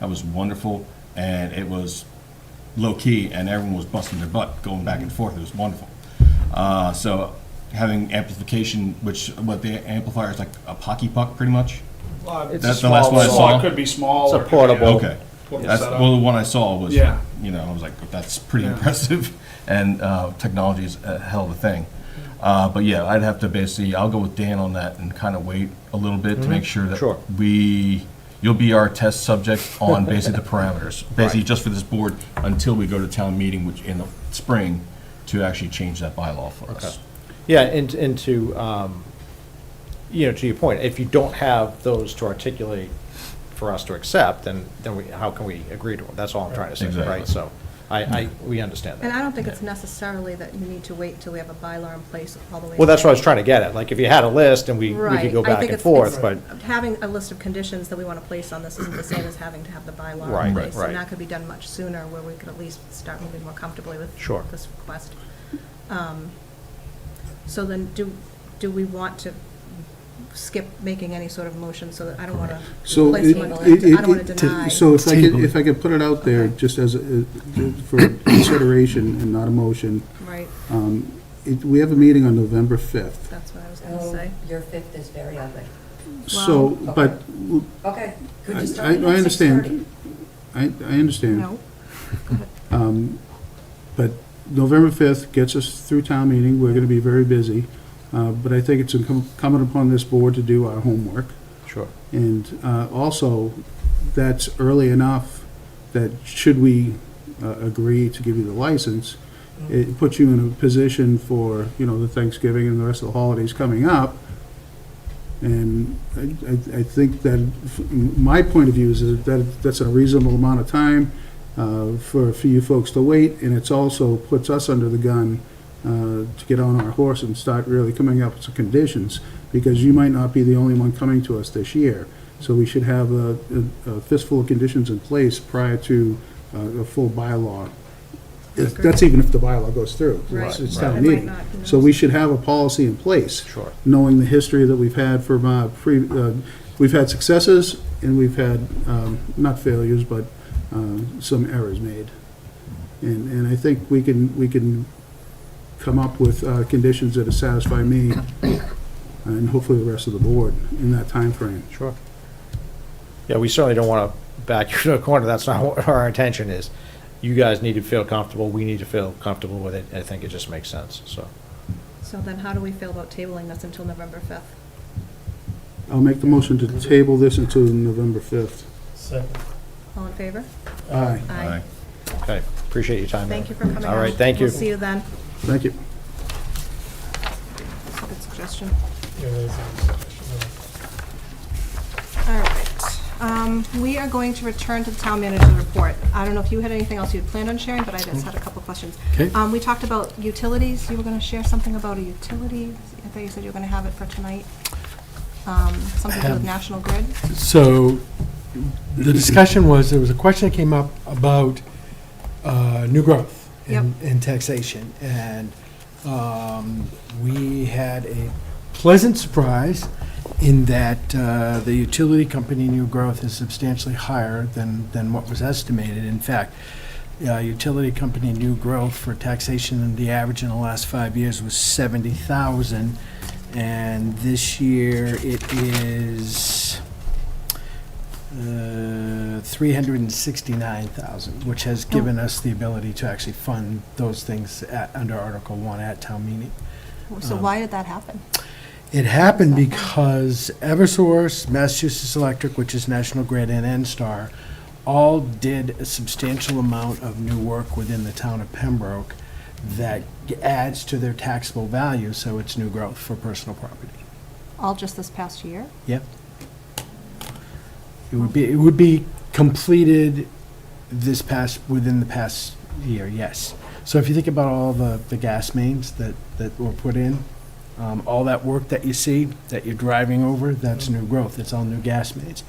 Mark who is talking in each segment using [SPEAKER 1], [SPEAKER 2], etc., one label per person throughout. [SPEAKER 1] That was wonderful, and it was low-key, and everyone was busting their butt, going back and forth. It was wonderful. Uh, So having amplification, which, what, the amplifier is like a hockey puck, pretty much?
[SPEAKER 2] Well,
[SPEAKER 3] It's
[SPEAKER 2] it's
[SPEAKER 3] a
[SPEAKER 1] That's the last
[SPEAKER 3] small
[SPEAKER 1] one I
[SPEAKER 3] little-
[SPEAKER 1] saw.
[SPEAKER 2] small, it could be small.
[SPEAKER 3] It's a
[SPEAKER 2] or it could be
[SPEAKER 3] portable.
[SPEAKER 1] Okay.
[SPEAKER 2] What was
[SPEAKER 1] That's,
[SPEAKER 2] set up?
[SPEAKER 1] well, the one I saw was,
[SPEAKER 2] Yeah.
[SPEAKER 1] you know, I was like, that's pretty
[SPEAKER 2] Yeah.
[SPEAKER 1] impressive, and uh, technology is a hell of a thing. Uh, But yeah, I'd have to basically, I'll go with Dan on that and kind of wait a little bit to make sure
[SPEAKER 3] Sure.
[SPEAKER 1] that we, you'll be our test subject on basically the parameters, basically just for this board, until we go to town meeting, which in the spring, to actually change that bylaw for us.
[SPEAKER 3] Yeah, and, and to, um, you know, to your point, if you don't have those to articulate for us to accept, then, then we, how can we agree to them? That's all I'm trying to say,
[SPEAKER 1] Exactly.
[SPEAKER 3] right? So I, I, we understand
[SPEAKER 4] And I
[SPEAKER 3] that.
[SPEAKER 4] don't think it's necessarily that you need to wait till we have a bylaw in place all the way.
[SPEAKER 3] Well, that's what I was trying to get at. Like, if you had a list and we, we
[SPEAKER 4] Right.
[SPEAKER 3] could go
[SPEAKER 4] I
[SPEAKER 3] back
[SPEAKER 4] think
[SPEAKER 3] and
[SPEAKER 4] it's- it's-
[SPEAKER 3] forth, but,
[SPEAKER 4] Having a list of conditions that we want to place on this isn't the same as having to have the bylaw
[SPEAKER 3] Right,
[SPEAKER 4] in place.
[SPEAKER 3] right.
[SPEAKER 4] And that could be done much sooner, where we could at least start moving more comfortably with
[SPEAKER 3] Sure.
[SPEAKER 4] this request. Um, So then, do, do we want to skip making any sort of motion, so that, I don't want to
[SPEAKER 5] So
[SPEAKER 4] place
[SPEAKER 5] it,
[SPEAKER 4] one, I
[SPEAKER 5] it-
[SPEAKER 4] don't want
[SPEAKER 5] it,
[SPEAKER 4] to
[SPEAKER 5] to-
[SPEAKER 4] deny.
[SPEAKER 5] so if I
[SPEAKER 6] Table
[SPEAKER 5] could,
[SPEAKER 6] it.
[SPEAKER 5] if I could put it out there,
[SPEAKER 4] Okay.
[SPEAKER 5] just as, a- for consideration and not a motion,
[SPEAKER 4] Right,
[SPEAKER 5] um, it, we have a meeting on November 5th.
[SPEAKER 4] that's what I was going to
[SPEAKER 6] Oh,
[SPEAKER 4] say.
[SPEAKER 6] your fifth is very ugly.
[SPEAKER 5] So,
[SPEAKER 6] Wow.
[SPEAKER 5] but,
[SPEAKER 6] Okay, could
[SPEAKER 5] I,
[SPEAKER 6] you
[SPEAKER 5] I
[SPEAKER 6] start it
[SPEAKER 5] I
[SPEAKER 6] at six thirty?
[SPEAKER 5] understand. I, I understand.
[SPEAKER 4] No?
[SPEAKER 5] But November 5th gets us through town meeting, we're going to be very busy, uh, but I think it's incumbent upon this board to do our homework.
[SPEAKER 3] sure.
[SPEAKER 5] And uh, also, that's early enough that should we uh, agree to give you the license, it puts you in a position for, you know, the Thanksgiving and the rest of the holidays coming up. And I, I- I think that, f- my point of view is that that's a reasonable amount of time uh, for, for you folks to wait, and it's also puts us under the gun uh, to get on our horse and start really coming up with some conditions, because you might not be the only one coming to us this year. So we should have a a fistful of conditions in place prior to uh, a full bylaw. If- That's even if the bylaw goes through. It's- It's
[SPEAKER 4] Right,
[SPEAKER 5] town
[SPEAKER 4] right. It might
[SPEAKER 5] meeting.
[SPEAKER 4] not, who
[SPEAKER 5] So
[SPEAKER 4] knows?
[SPEAKER 5] we should have a policy in place.
[SPEAKER 3] Sure.
[SPEAKER 5] Knowing the history that we've had from, uh, pre, uh, we've had successes and we've had, um, not failures, but, um, some errors made. And, and I think we can, we can come up with, uh, conditions that'll satisfy me and hopefully the rest of the board in that time frame.
[SPEAKER 3] Sure. Yeah, we certainly don't want to back you to a corner. That's not what our intention is. You guys need to feel comfortable. We need to feel comfortable with it. I think it just makes sense, so.
[SPEAKER 4] So then, how do we feel about tabling this until November 5th?
[SPEAKER 5] I'll make the motion to table this until November 5th.
[SPEAKER 7] Second.
[SPEAKER 4] All in favor?
[SPEAKER 5] Aye,
[SPEAKER 1] Aye.
[SPEAKER 3] Okay, appreciate your time.
[SPEAKER 4] Thank you
[SPEAKER 3] Ed.
[SPEAKER 4] for coming out.
[SPEAKER 3] All right, thank you.
[SPEAKER 4] We'll see you then.
[SPEAKER 5] thank you.
[SPEAKER 4] That's a good suggestion.
[SPEAKER 7] Yeah, there's a-
[SPEAKER 4] All right. Um, We are going to return to the town manager's report. I don't know if you had anything else you'd planned on sharing, but I just had a couple questions.
[SPEAKER 5] Okay.
[SPEAKER 4] Um, We talked about utilities. You were going to share something about a utility. I thought you said you were going to have it for tonight. Um, Something to do with
[SPEAKER 7] Have-
[SPEAKER 4] National Grid.
[SPEAKER 7] So, the discussion was, there was a question that came up about uh, new growth and and taxation. And um, we had a pleasant surprise in that uh, the utility company new growth is substantially higher than, than what was estimated. In fact, uh, utility company new growth for taxation, the average in the last five years was 70,000. And this year, it is uh, 369,000, which has given us the ability to actually fund those things at, under Article 1 at town meeting.
[SPEAKER 4] So why did that happen?
[SPEAKER 7] It happened because Eversource, Massachusetts Electric, which is National Grid, and NSTAR all did a substantial amount of new work within the town of Pembroke that adds to their taxable value, so it's new growth for personal property.
[SPEAKER 4] All just this past year?
[SPEAKER 7] Yep. It would be, it would be completed this past, within the past year, yes. So if you think about all the, the gas mains that, that were put in, um, all that work that you see, that you're driving over, that's new growth, it's all new gas mains.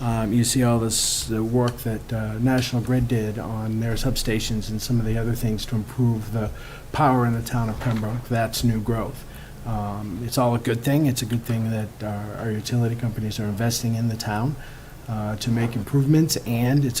[SPEAKER 7] Um, you see all this, the work that, uh, National Grid did on their substations and some of the other things to improve the power in the town of Pembroke, that's new growth. Um, It's all a good thing. It's a good thing that our our utility companies are investing in the town. uh, to make improvements, and it's a